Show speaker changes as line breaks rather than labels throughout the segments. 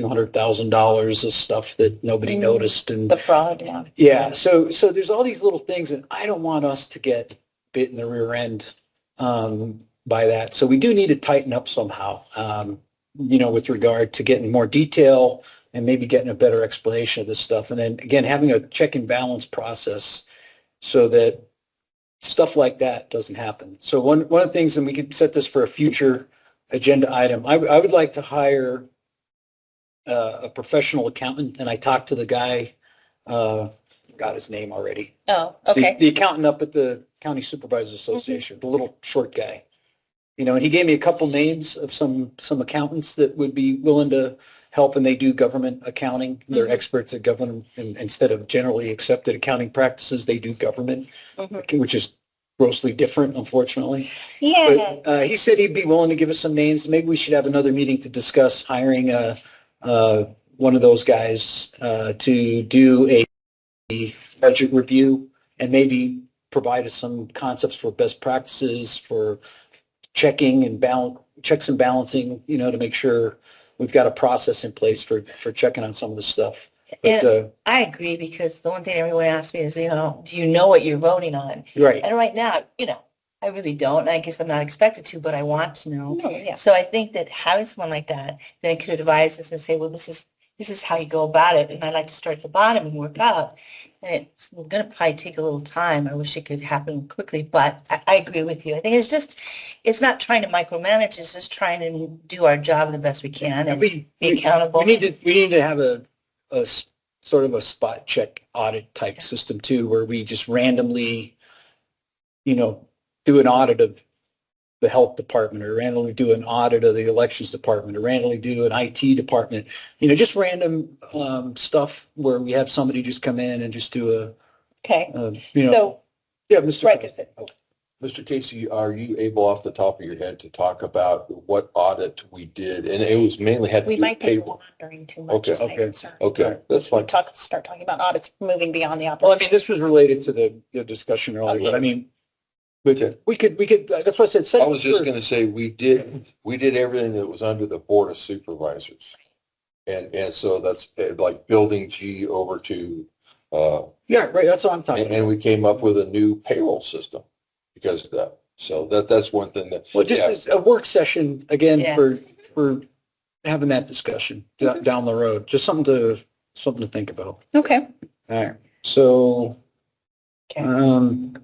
few hundred thousand dollars of stuff that nobody
Mm.
noticed and
The fraud, yeah.
yeah, so so there's all these little things, and I don't want us to get bit in the rear end um, by that. So we do need to tighten up somehow, um, you know, with regard to getting more detail and maybe getting a better explanation of this stuff, and then again having a check and balance process so that stuff like that doesn't happen. So one one of the things, and we could set this for a future agenda item. I, I would like to hire uh, a professional accountant, and I talked to the guy. Uh, got his name already.
Oh,
The-
okay.
The accountant up at the County Supervisors Association, the little short guy. You know, and he gave me a couple names of some, some accountants that would be willing to help and they do government accounting. They're
Mhm.
experts at government, and instead of generally accepted accounting practices, they do government,
Mhm.
which is grossly different, unfortunately.
Yeah,
But, uh, he said he'd be willing to give us some names. Maybe we should have another meeting to discuss hiring, uh, uh, one of those guys, uh, to do a budget review and maybe provide us some concepts for best practices for checking and balance, checks and balancing, you know, to make sure we've got a process in place for, for checking on some of this stuff. But,
and
uh,
I agree because the one thing everyone asks me is, you know, do you know what you're voting on?
right.
And right now, you know, I really don't. And I guess I'm not expected to, but I want to know.
Yeah.
So I think that having someone like that then could advise us and say, well, this is, this is how you go about it. And I'd like to start at the bottom and work up. And it's going to probably take a little time. I wish it could happen quickly, but I, I agree with you. I think it's just, it's not trying to micromanage. It's just trying to do our job the best we can and
We-
be
we-
accountable.
We need to, we need to have a, a s- sort of a spot check audit type system too, where we just randomly, you know, do an audit of the health department or randomly do an audit of the elections department or randomly do an IT department, you know, just random um, stuff where we have somebody just come in and just do a,
Okay.
a you know,
So,
yeah, Mr.
right,
President.
'cause it-
Mr. Casey, are you able off the top of your head to talk about what audit we did? And it was mainly had to
We
do with
might be
payroll.
wandering too much.
Okay,
is my
okay.
concern.
Okay, that's
We
fine.
talk, start talking about audits, moving beyond the
Well, I
operations.
mean, this was related to the, the discussion earlier, but I mean,
Okay.
we could, we could, uh, that's what I said. set
I
it
was just
for-
going to say, we did, we did everything that was under the Board of Supervisors. And, and so that's eh, like building G over to, uh,
Yeah, right, that's what I'm talking
and,
about.
and we came up with a new payroll system because of that. So that, that's one thing that.
Well, just
Yeah.
as a work session again for,
Yes. Mm-hmm.
for having that discussion d- down the road, just something to, something to think about.
Okay.
All right. So,
Okay.
um,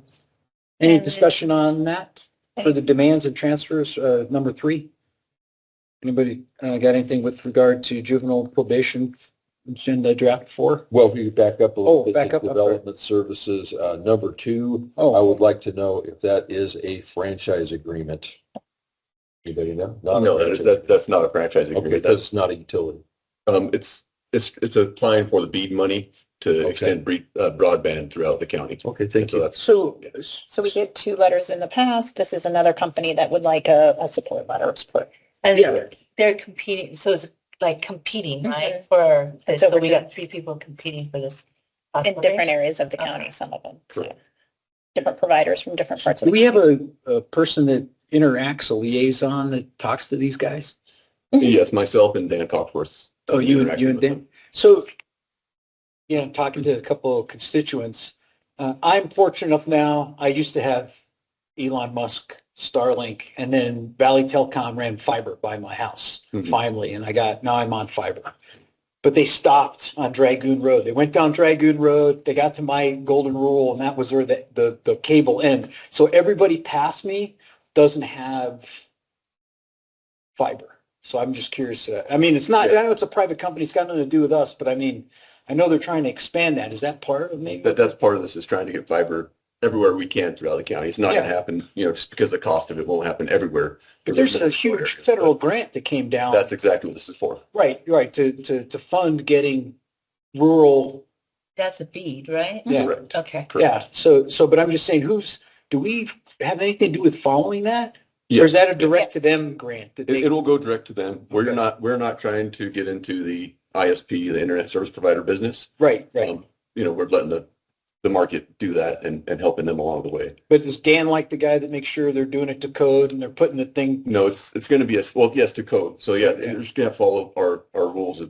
any
And-
discussion on that for the demands and transfers, uh, number three? Anybody, uh, got anything with regard to juvenile probation agenda draft four?
Well, if you back up a
Oh,
little bit,
back
to
up, I'm sorry.
Development Services, uh, number two, I
Oh,
would like to know if that is a franchise agreement. Anybody know? Not a
Oh, No, that,
franchise.
that, that's not a franchise
Okay,
agreement. That's,
that's not a utility.
um, it's, it's, it's applying for the BEAD money to
Okay.
extend bre- uh, broadband throughout the county.
Okay,
And
thank
so
you.
that's,
so,
So we did two letters in the past. This is another company that would like a, a support letter of support.
and
Yeah.
they're- they're competing, so it's like competing, right? For,
It's
so we
overdue.
got three people competing for this.
In different areas of the county, some of them. so. Uh-huh. Different providers from different parts of.
do
the
we have a, a person that interacts, a liaison that talks to these guys?
yes, myself and Dan Cockworth. uh,
Oh, you and,
interacting
you and
with
Dan?
them.
So, you know, talking to a couple of constituents, uh, I'm fortunate enough now, I used to have Elon Musk, Starlink, and then Valley Telecom ran fiber by my house
Mhm.
finally, and I got, now I'm on fiber. But they stopped on Dragoon Road. They went down Dragoon Road, they got to my golden rule, and that was where the, the, the cable end. So everybody past me doesn't have fiber. So I'm just curious. Uh, I mean, it's not, I know it's a private company. It's got nothing to do with us, but I mean, I know they're trying to expand that. Is that part of maybe?
That, that's part of this is trying to get fiber everywhere we can throughout the county. It's not gonna happen, you know, just because the cost of it won't happen everywhere.
But there's a huge federal grant that came down.
That's exactly what this is for.
right, right, to, to, to fund getting rural.
That's a bead, right?
Yeah.
Correct.
Okay.
Yeah. So, so, but I'm just saying, who's, do we have anything to do with following that? Or
Yes.
is that a direct to them grant? that they-
It, will go direct to them. We're
Okay.
not, we're not trying to get into the ISP, the internet service provider business.
right, right.
Um, You know, we're letting the, the market do that and, and helping them along the way.
But is Dan like the guy that makes sure they're doing it to code and they're putting the thing
No, it's, it's going to be a, well, yes, to code. So yeah,
Yeah.
they're just going to follow our, our rules of